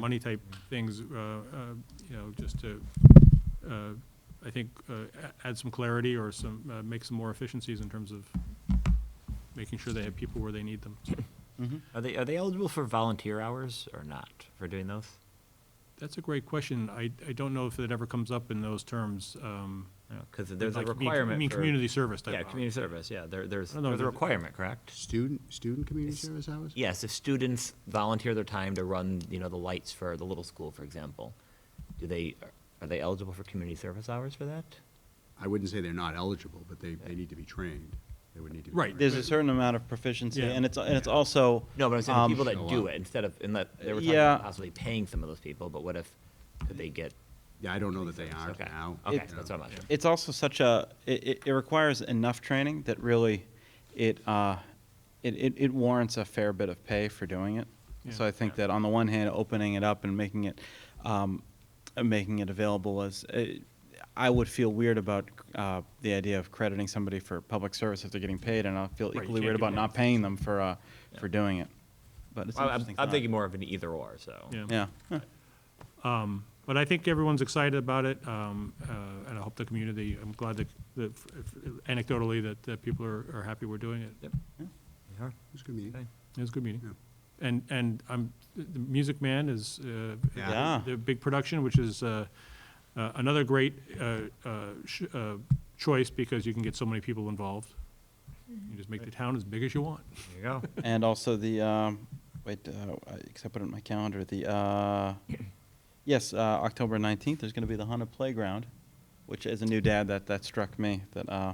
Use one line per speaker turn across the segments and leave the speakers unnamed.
money type things, uh, uh, you know, just to, uh, I think, uh, a- add some clarity or some, uh, make some more efficiencies in terms of making sure they have people where they need them. So
Are they, are they eligible for volunteer hours or not for doing those?
That's a great question. I, I don't know if it ever comes up in those terms. um,
Because there's a
like, I mean, I
requirement
mean,
for-
community service type.
Yeah,
of-
community service, yeah, there, there's,
I don't know,
there's a
does it-
requirement, correct?
Student, student community
It's-
service hours?
Yes, if students volunteer their time to run, you know, the lights for the little school, for example, do they, are they eligible for community service hours for that?
I wouldn't say they're not eligible, but they, they need to be trained. They would need to be.
Right.
trained.
There's a certain amount of proficiency,
Yeah.
and it's, and it's also.
No, but I'm saying the
um,
people
Show
Oh,
that do
up.
it, instead of, and that, they were talking about
Yeah.
possibly paying some of those people, but what if, could they get?
Yeah, I don't know that they aren't
Okay,
now.
okay,
you know.
that's what I'm asking.
It's also such a, it, it- it requires enough training that really it, uh, it, it- it warrants a fair bit of pay for doing it. So
Yeah.
I think that on the one hand, opening it up and making it, um, uh, making it available is, uh, I would feel weird about, uh, the idea of crediting somebody for public service if they're getting paid, and I feel
Right, you
equally
can't
weird
do
about
that.
not paying them for, uh, for doing it. But it's an
Well, I'm,
interesting
I'm
thought.
thinking more of an either or, so.
Yeah.
But I think everyone's excited about it, um, uh, and I hope the community, I'm glad that, that anecdotally, that, that people are, are happy we're doing it.
Yep.
It's gonna be,
Okay.
It was a good meeting. And, and I'm, the the Music Man is, uh,
Yeah.
Yeah.
their big production, which is, uh, uh, another great, uh, uh, sh- uh, choice because you can get so many people involved. You just make the town as big as you want.
There you go.
And also the, um, wait, uh, I- 'cause I put it in my calendar, the, uh, yes, uh, October 19th, there's going to be the haunted Playground, which as a new dad, that, that struck me, that, uh,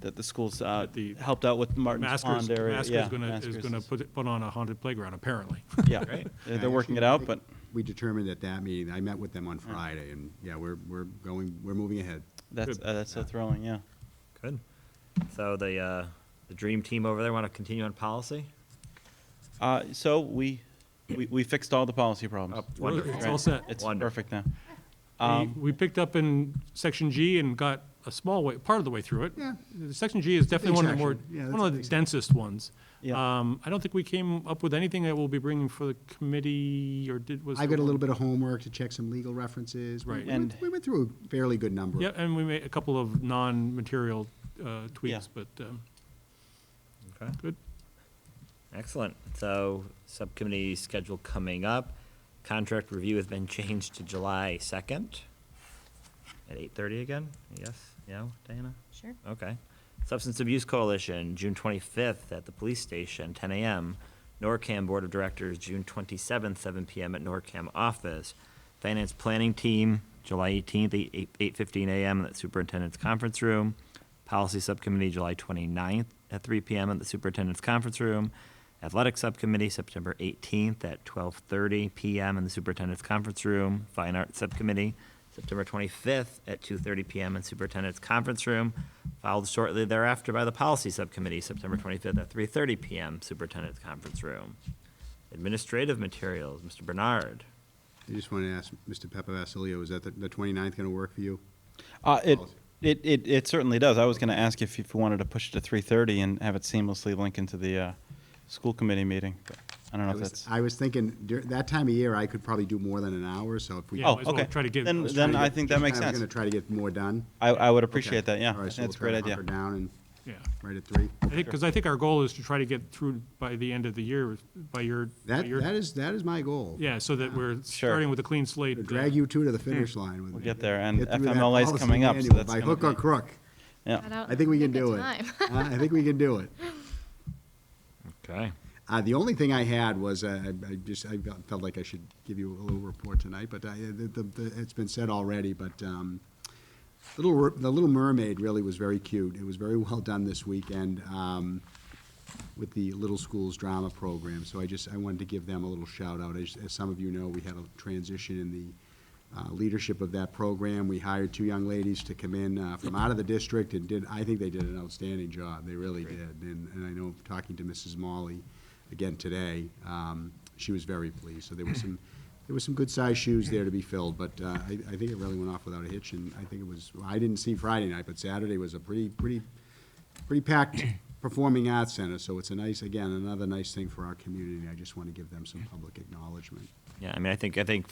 that the schools uh,
That the
helped out with Martin's
Masker's,
Pond area.
Masker's
Yeah,
gonna, is
Masker's
gonna put, it- put on a haunted playground, apparently.
Yeah,
Right.
They're-
Yeah,
they're working it
actually, I
out,
think
but
we determined at that meeting, I met with them
Mm.
on Friday, and yeah, we're, we're going, we're moving ahead.
that's,
Good.
uh, that's so thrilling, yeah.
Good. So the, uh, the dream team over there want to continue on policy?
Uh, So we, we we fixed all the policy problems.
Oh, wonderful.
It's all set.
It's
Wonderful.
perfect now.
We-
Um,
We picked up in section G and got a small way, part of the way through it.
Yeah.
The Section G is definitely one of the more,
section. Yeah,
one
that's a
of the
big
densest ones.
Yeah.
Um, I don't think we came up with anything that we'll be bringing for the committee, or did, was.
I
there
got a
one?
little bit of homework to check some legal references. We-
Right.
we went-
And-
We went through a fairly good number.
Yeah, and we made a couple of non-material uh, tweaks, but, um,
Okay.
good.
Excellent. So subcommittee schedule coming up. Contract review has been changed to July second at eight thirty again. Yes, yeah, Diana?
Sure.
Okay. Substance Abuse Coalition, June twenty-fifth at the police station, ten AM. NORCAM Board of Directors, June twenty-seventh, seven PM at NORCAM office. Finance Planning Team, July eighteenth, eight, eight fifteen AM at Superintendent's Conference Room. Policy Subcommittee, July 29th at three PM at the Superintendent's Conference Room. Athletic Subcommittee, September 18th at 12:30 PM in the Superintendent's Conference Room. Fine Arts Subcommittee, September 25th at 2:30 PM in Superintendent's Conference Room, followed shortly thereafter by the Policy Subcommittee, September 25th at 3:30 PM, Superintendent's Conference Room. Administrative materials, Mr. Bernard.
I just wanted to ask Mr. Peppa Basilio, is that the- the 29th gonna work for you?
Uh, it,
policy.
it, it, it certainly does. I was going to ask if, if you wanted to push it to three thirty and have it seamlessly link into the uh, school committee meeting. but I don't know
I
if
was-
that's.
I was thinking, dur- that time of year, I could probably do more than an hour, so if we.
Yeah,
oh,
might as well
okay.
try to give-
then
let's
then
try to
I
get-
think that makes
I was
sense.
gonna try to get more done.
I, I would appreciate
Okay.
that. Yeah, I
All
think
right, so
that's a
we'll
great
try to
idea.
hunker down and
yeah.
right at three.
I think, because I think our goal is to try to get through by the end of the year, by your, by
That,
your.
that is, that is my goal.
Yeah, so that we're
Sure.
starting with a clean slate.
To
uh,
Drag you two to the finish line with me.
Hmm. We'll get there, and
Get through that
FMLA 's
policy
coming up, so
manual
that's
By
gonna
hook or
be-
crook.
Yeah.
I think we can do it. Uh, I think we can do it.
Okay.
Uh, the only thing I had was, uh, I, I just, I felt like I should give you a little report tonight, but I, the, the, the- it's been said already, but, um, Little, Mer- the Little Mermaid really was very cute. It was very well done this weekend, um, with the Little Schools Drama Program, so I just, I wanted to give them a little shout out. As, as some of you know, we had a transition in the, uh, leadership of that program. We hired two young ladies to come in uh, from out of the district and did, I think they did an outstanding job. They really did. And, and I know, talking to Mrs. Molly again today, um, she was very pleased. So there was some, there was some good-sized shoes there to be filled, but uh, I, I think it really went off without a hitch. And I think it was, I didn't see Friday night, but Saturday was a pretty, pretty, pretty packed performing arts center. So it's a nice, again, another nice thing for our community. I just want to give them some public acknowledgement.
Yeah, I mean, I think, I think